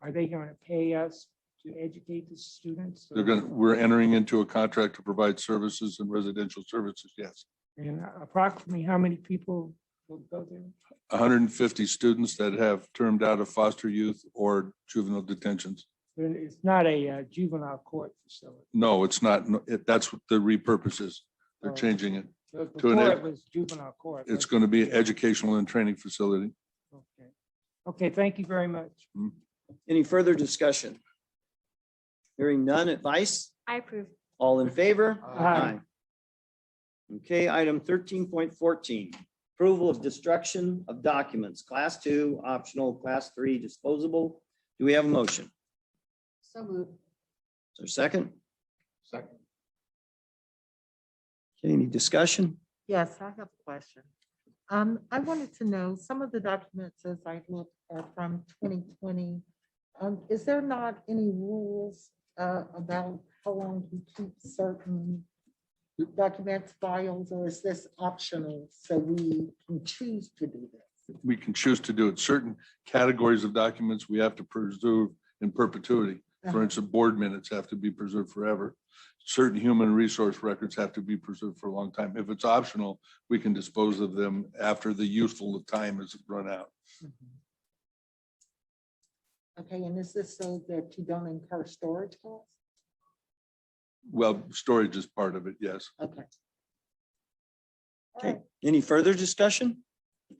Are they going to pay us to educate the students? They're going, to we're entering into a contract to provide services and residential services, yes. And approximately how many people will go there? hundred and fifty students that have termed out of foster youth or juvenile detentions. There- It's not a uh, juvenile court facility. No, it's not, no, it- that's what the repurpose is. They're Oh. changing it. Because To an Before ed- it was juvenile court. It's going to be an educational and training facility. Okay. Okay, thank you very much. Any further discussion? Hearing none advice? I approve. All in favor? Aye. Okay, item thirteen point fourteen, approval of destruction of documents, class two, optional, class three, disposable. Do we have a motion? So moved. Is there a second? Second. Okay, any discussion? Yes, I have a question. Um, I wanted to know, some of the documents as I look are from twenty twenty. Um, is there not any rules, uh, about how long you keep certain documents, files, or is this optional? So we can choose to do this? We can choose to do it. Certain categories of documents we have to preserve in perpetuity. For instance, board minutes have to be preserved forever. Certain human resource records have to be preserved for a long time. If it's optional, we can dispose of them after the useful time has run out. Okay, and is this so that you don't incur storage costs? Well, storage is part of it, yes. Okay. Okay, any further discussion?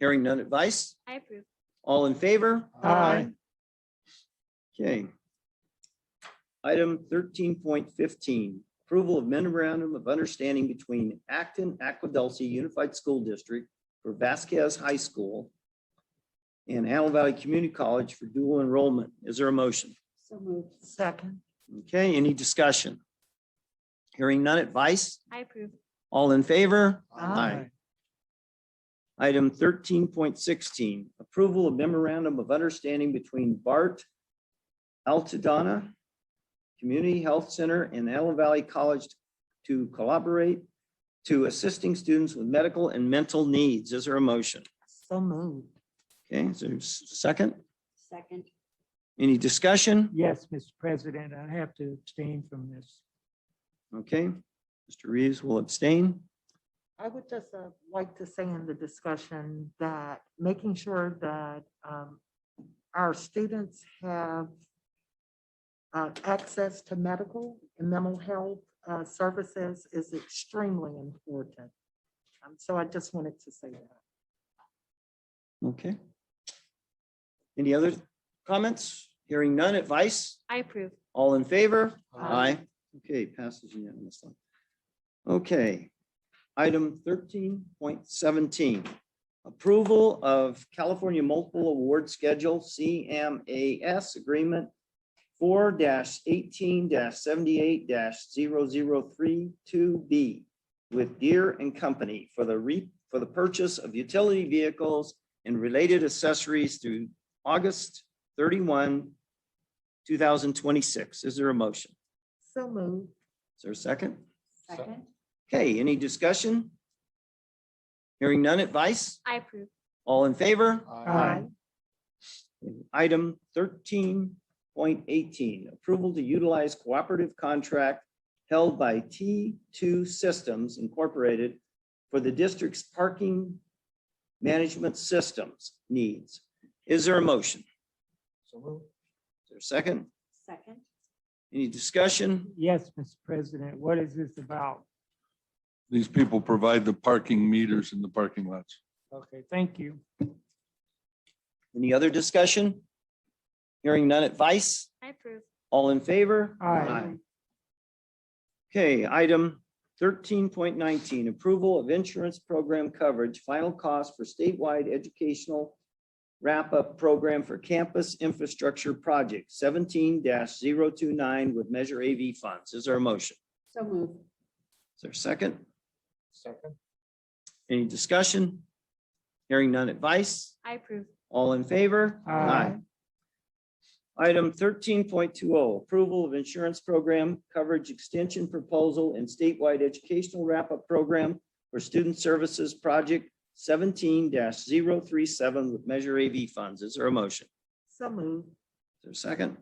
Hearing none advice? I approve. All in favor? Aye. Okay. Item thirteen point fifteen, approval of memorandum of understanding between Acton Aquadelcie Unified School District for Vasquez High School and Antelope Valley Community College for dual enrollment. Is there a motion? So moved. Second. Okay, any discussion? Hearing none advice? I approve. All in favor? Aye. Item thirteen point sixteen, approval of memorandum of understanding between BART Altadena Community Health Center and Antelope Valley College to collaborate to assisting students with medical and mental needs. Is there a motion? So moved. Okay, is there a s- second? Second. Any discussion? Yes, Mr. President, I have to abstain from this. Okay, Mr. Reeves will abstain. I would just uh, like to say in the discussion that making sure that um, our students have uh, access to medical and mental health uh, services is extremely important. Um, So I just wanted to say that. Okay. Any other comments? Hearing none, advice? I approve. All in favor? Aye. Okay, passes unanimously. Okay, item thirteen point seventeen. Approval of California Multiple Award Schedule, CMAS Agreement four eighteen seventy-eight 3 B with Deere and Company for the re, for the purchase of utility vehicles and related accessories through August thirty-one, two thousand twenty-six. Is there a motion? So moved. Is there a second? Second. Okay, any discussion? Hearing none advice? I approve. All in favor? Aye. Item thirteen point eighteen, approval to utilize cooperative contract held by T two Systems Incorporated for the district's parking management systems needs. Is there a motion? Is there a second? Second. Any discussion? Yes, Mr. President, what is this about? These people provide the parking meters in the parking lots. Okay, thank you. Any other discussion? Hearing none advice? I approve. All in favor? Aye. Okay, item thirteen point nineteen, approval of insurance program coverage, final cost for statewide educational wrap-up program for campus infrastructure project seventeen 29 with Measure AV funds. Is there a motion? So moved. Is there a second? Second. Any discussion? Hearing none advice? I approve. All in favor? Aye. Item thirteen point two oh, approval of insurance program coverage extension proposal and statewide educational wrap-up program for student services project seventeen 37 with Measure AV funds. Is there a motion? So moved. Is there a second?